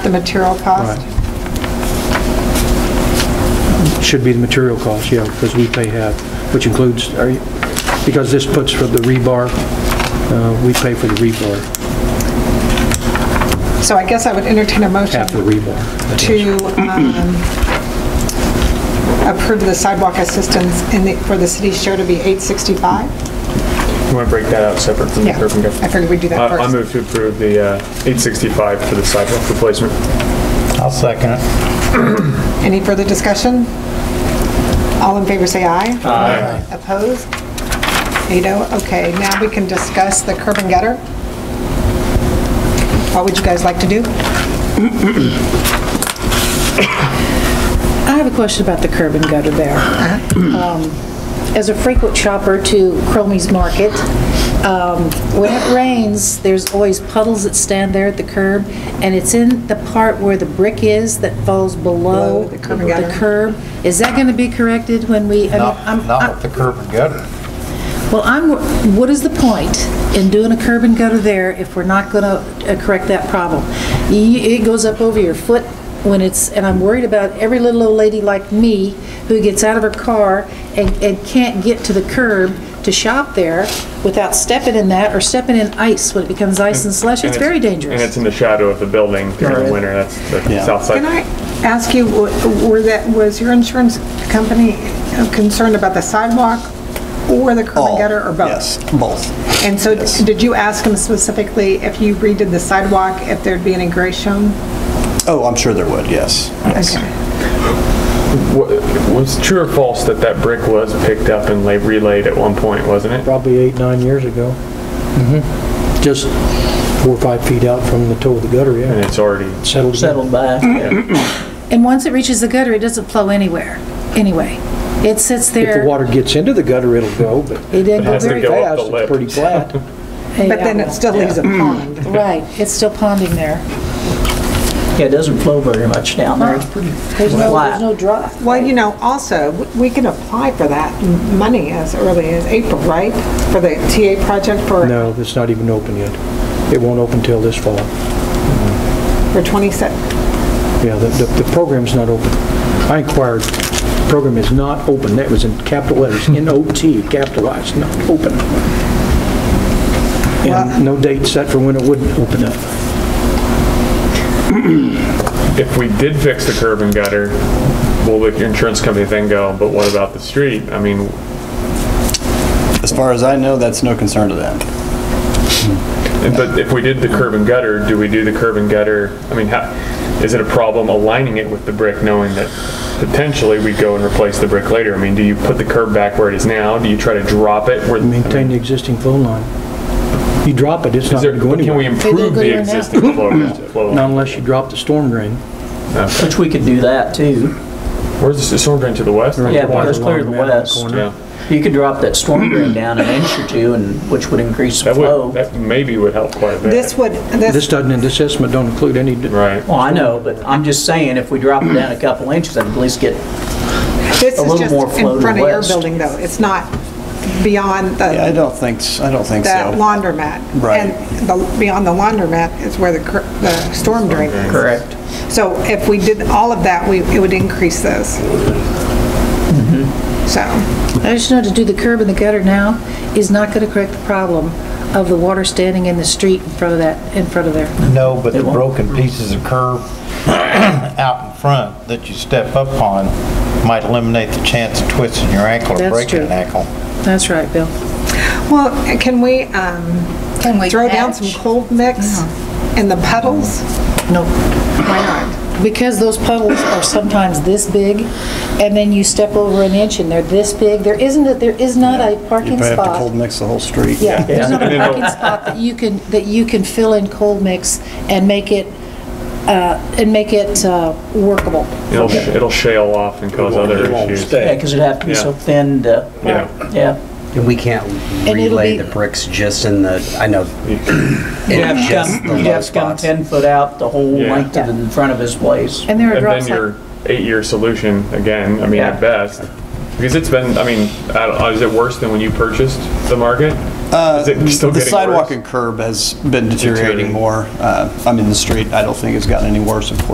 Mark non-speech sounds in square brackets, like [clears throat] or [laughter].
material cost? Should be the material cost, yeah, because we pay half, which includes, are you- because this puts for the rebar, uh, we pay for the rebar, So I guess I would entertain a motion half of the rebar. to um, approve the sidewalk assistance in the, for the city show to be 865? You want to break that out separate from the Yeah, curb and I gutter? figured we'd do that I I first. move to approve the uh, 865 for the sidewalk replacement. I'll second it. Any further discussion? All in favor, say aye. Aye. Opposed? Eight oh, okay, now we can discuss the curb and gutter. What would you guys like to do? I have a question about the curb and gutter there. Uh-huh. Um, As a frequent shopper to Cromie's Market, um, when it rains, there's always puddles that stand there at the curb, and it's in the part where the brick is that falls below Below the curb and gutter. the curb. Is that going to be corrected when we, I mean, Not, Oh, I'm- not I- with the curb and gutter. well, I'm, what is the point in doing a curb and gutter there if we're not going to correct that problem? Y- It goes up over your foot when it's, and I'm worried about every little old lady like me who gets out of her car and, and can't get to the curb to shop there without stepping in that or stepping in ice when it becomes ice and slush. It's And very And it's dangerous. in the shadow of the building during the winter, that's the south Can I side. ask you, w- were that, was your insurance company concerned about the sidewalk or the curb and All, gutter or both? Yes, both. And so did you ask them specifically if you redid the sidewalk, if there'd be any gray shown? Oh, I'm sure there would, yes. yes. Okay. Wa- Was it true or false that that brick was picked up and la- relayed at one point, wasn't it? Probably eight, nine years ago. Just four or five feet out from the toe of the gutter, And yeah. it's already, Settled. down. settled by. And once it reaches the gutter, it doesn't flow anywhere, anyway. It sits If the there. water gets into the gutter, it'll go, but It didn't go has to very go up fast, the lip. it's pretty flat. But then it still leaves a pond. Right, it's still ponding there. Yeah, it doesn't flow very much down there. It's pretty There's no, flat. there's no drop. Well, you know, also, w- we can apply for that m- money as early as April, right? For the TA project for, No, it's not even open yet. It won't open till this fall. for 27. Yeah, the, the the program's not open. I inquired, program is not open, that was in capital letters, N-O-T, capitalized, not open. And no date set for when it would open up. if we did fix the curb and gutter, will the insurance company then go, but what about the street? I mean, As far as I know, that's no concern to them. But if we did the curb and gutter, do we do the curb and gutter, I mean, how, is it a problem aligning it with the brick, knowing that potentially we go and replace the brick later? I mean, do you put the curb back where it is now? Do you try to drop it where? I mean, Maintain the existing flow line. You drop it, it's Is not there, gonna go but can we anywhere. They improve don't go the there now. existing flow? flow? Not unless you drop the storm drain. Which we could do that too. Where's the storm drain to the west? Yeah, water because clear to the line around that west. corner. Yeah, You could drop that storm drain down an inch or two and, which would increase the that flow. would, that maybe would help quite a bit. This would, This this, doesn't, this estimate don't include any, Right. Well, I know, but I'm just saying, if we drop it down a couple inches, I'd at least get, this a is little just more flow in to front of your west. building, though. It's not beyond Yeah, I the, don't think, s- I don't think the so. laundromat. Right. And the, beyond the laundromat is where the, cur- the storm drain is. correct. So if we did all of that, we, it would increase those. Mm-hmm. So, I just know to do the curb and the gutter now is not going to correct the problem of the water standing in the street in front of that, in front of there. No, but the broken pieces of curb [clears throat] out in front that you step up on might eliminate the chance of twisting your ankle or That's breaking true. an ankle. That's right, Bill. well, can we, um, Can we Uh-huh. throw down some patch? cold mix in the puddles? No, Why not? because those puddles are sometimes this big, and then you step over an inch and they're this big. There isn't, a- there is not a You parking probably have to cold spot. mix the whole street. Yeah, there's [laughs] not And a then parking spot that you can, that you can fill in cold mix and make it, uh, and make it uh, workable. It'll, sh- it'll shale off and cause other issues. Yeah, because it'd have to be so Yeah. thin to, Yeah. yeah. And we can't it'll relay be- the bricks just in the, I know, You'd have to just the come, you'd low have to come spots. 10 foot out the whole Yeah. length of the front of his place. And there are And drops then like your eight-year solution, again, I mean, Yeah. at best, Because it's been, I mean, I don't, is it worse than when you purchased the market? Uh, is it still The getting sidewalk worse? and curb has been deteriorating Deteriorating. more. Uh, I mean, the street, I don't think has gotten any worse, of course.